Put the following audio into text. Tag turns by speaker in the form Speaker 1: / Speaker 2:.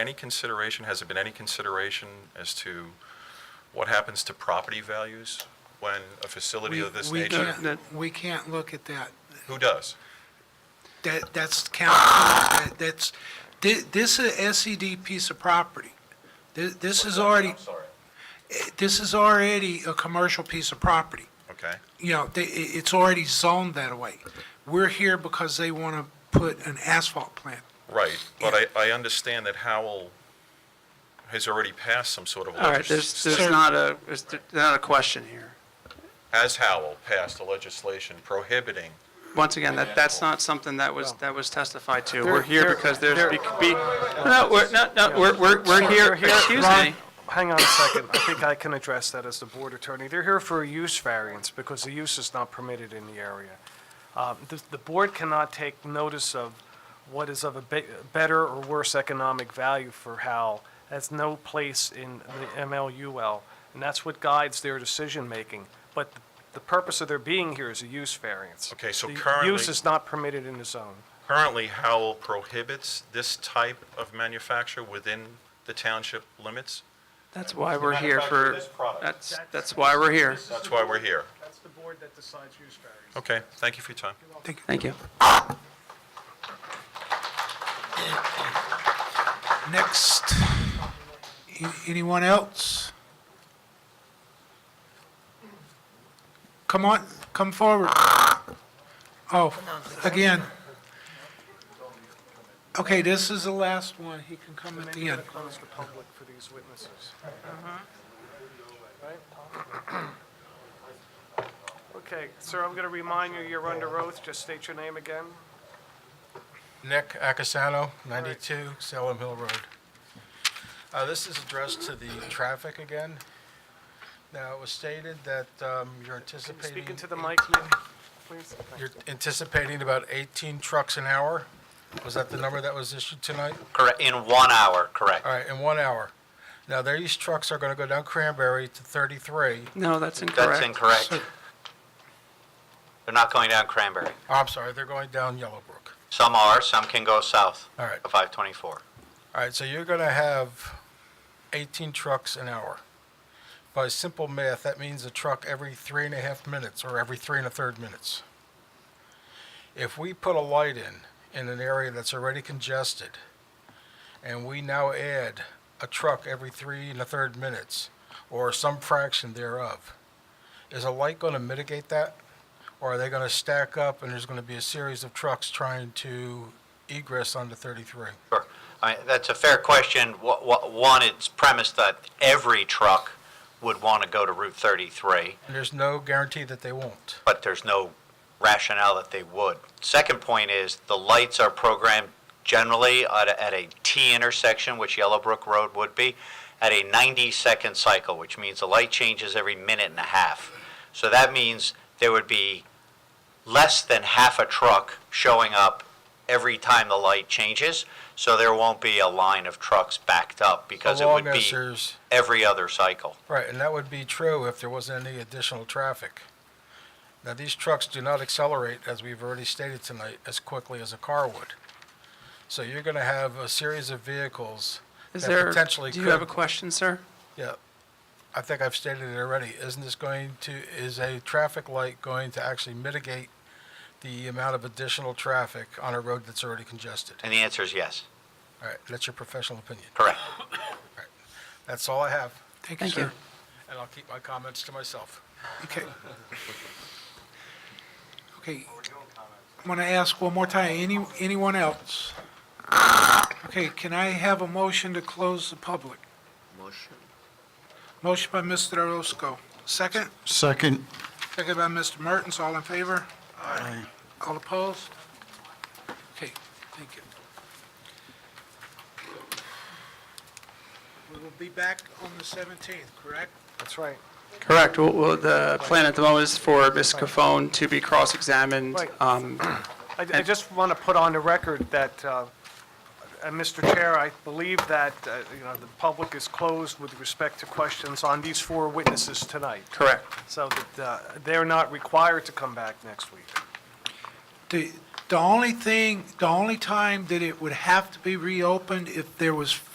Speaker 1: Any consideration, has there been any consideration as to what happens to property values when a facility
Speaker 2: We-
Speaker 1: of this
Speaker 2: we
Speaker 1: nature?
Speaker 2: can't- We can't look at that.
Speaker 1: Who does?
Speaker 2: That, that's county,
Speaker 1: Ah!
Speaker 2: that- that's, thi- this is a SED piece of property. Thi- This is already, eh,
Speaker 1: I'm sorry.
Speaker 2: this is already a commercial piece of property.
Speaker 1: Okay,
Speaker 2: You know, they, i- it's already zoned that way. We're here because they want to put an asphalt plant.
Speaker 1: right, but I, I understand that Howell has already passed some sort of
Speaker 3: All right, there's,
Speaker 1: legislation.
Speaker 3: there's not a, there's not a question here.
Speaker 1: Has Howell passed a legislation prohibiting
Speaker 3: Once again, that, that's not something that was, that was testified to. We're here
Speaker 4: There-
Speaker 3: because
Speaker 4: there-
Speaker 3: there's, be, be- no, we're, no, no, we're, we're, we're here, excuse
Speaker 4: Ron,
Speaker 3: me.
Speaker 4: Hang on a second. I think I can address that as the board attorney. They're here for a use variance because the use is not permitted in the area. Um, The the board cannot take notice of what is of a be- better or worse economic value for Howell. That's no place in the MLUL, and that's what guides their decision-making. But the purpose of their being here is a use variance.
Speaker 1: Okay, so
Speaker 4: The
Speaker 1: currently-
Speaker 4: use is not permitted in the zone.
Speaker 1: Currently, Howell prohibits this type of manufacture within the township limits.
Speaker 3: That's why we're here
Speaker 1: Manufacture
Speaker 3: for,
Speaker 1: this product.
Speaker 3: that's, that's why we're here.
Speaker 1: That's why we're here.
Speaker 4: That's the board that decides use variance.
Speaker 1: Okay, thank you for your time.
Speaker 3: Thank you.
Speaker 2: Next, a- anyone else? Come on, come forward. Oh, again. Okay, this is the last one, he can come at the end.
Speaker 4: close the public for these witnesses. Right? Okay, sir, I'm going to remind you, you're under oath. Just state your name again.
Speaker 5: Nick Acasano, 92 Salem Hill Road. Uh, This is addressed to the traffic again. Now, it was stated that um, you're anticipating...
Speaker 4: Speak into the mic, Nick, please.
Speaker 5: You're anticipating about 18 trucks an hour? Was that the number that was issued tonight?
Speaker 6: Correct, in one hour, correct.
Speaker 5: All right, in one hour. Now, these trucks are going to go down Cranberry to 33.
Speaker 3: No, that's
Speaker 6: That's
Speaker 3: incorrect.
Speaker 6: incorrect. They're not going down Cranberry.
Speaker 5: Oh, I'm sorry, they're going down Yellowbrook.
Speaker 6: Some are, some can go south
Speaker 5: All right.
Speaker 6: of 524.
Speaker 5: All right, so you're going to have 18 trucks an hour. By simple math, that means a truck every three and a half minutes or every three and a third minutes. If we put a light in, in an area that's already congested, and we now add a truck every three and a third minutes or some fraction thereof, is a light going to mitigate that? Or are they going to stack up and there's going to be a series of trucks trying to egress onto 33?
Speaker 6: Sure. I mean, that's a fair question. Wha- wha- One, it's premised that every truck would want to go to Route 33,
Speaker 5: And there's no guarantee that they won't.
Speaker 6: but there's no rationale that they would. Second point is, the lights are programmed generally at a- at a T intersection, which Yellowbrook Road would be, at a 90-second cycle, which means the light changes every minute and a half. So that means there would be less than half a truck showing up every time the light changes, so there won't be a line of trucks backed up because
Speaker 5: So
Speaker 6: it would
Speaker 5: long as
Speaker 6: be
Speaker 5: there's-
Speaker 6: every other cycle.
Speaker 5: Right, and that would be true if there wasn't any additional traffic. Now, these trucks do not accelerate, as we've already stated tonight, as quickly as a car would. So you're going to have a series of vehicles
Speaker 3: Is
Speaker 5: that
Speaker 3: there,
Speaker 5: potentially
Speaker 3: do you have a
Speaker 5: could-
Speaker 3: question, sir?
Speaker 5: Yeah, I think I've stated it already. Isn't this going to, is a traffic light going to actually mitigate the amount of additional traffic on a road that's already congested?
Speaker 6: And the answer is yes,
Speaker 5: All right, that's your professional opinion.
Speaker 6: correct.
Speaker 5: That's all I have,
Speaker 2: Thank you,
Speaker 3: Thank you.
Speaker 2: sir.
Speaker 5: and I'll keep my comments to myself.
Speaker 2: Okay. Okay. I'm going to ask one more time, any, anyone else? Okay, can I have a motion to close the public? Motion. Motion by Mr. Orozco. Second?
Speaker 7: Second.
Speaker 2: Second by Mr. Mertens, all in favor?
Speaker 7: Aye.
Speaker 2: All opposed? Okay, thank you. We will be back on the 17th, correct?
Speaker 4: That's right.
Speaker 3: Correct. Well, well, the plan at the moment is for Ms. Cofone to be cross-examined.
Speaker 4: Right.
Speaker 3: Um,
Speaker 4: I, I just want to put on the record that, uh, uh, Mr. Chair, I believe that, uh, you know, the public is closed with respect to questions on these four witnesses tonight,
Speaker 3: Correct.
Speaker 4: so that uh, they're not required to come back next week.
Speaker 2: The, the only thing, the only time that it would have to be reopened if there was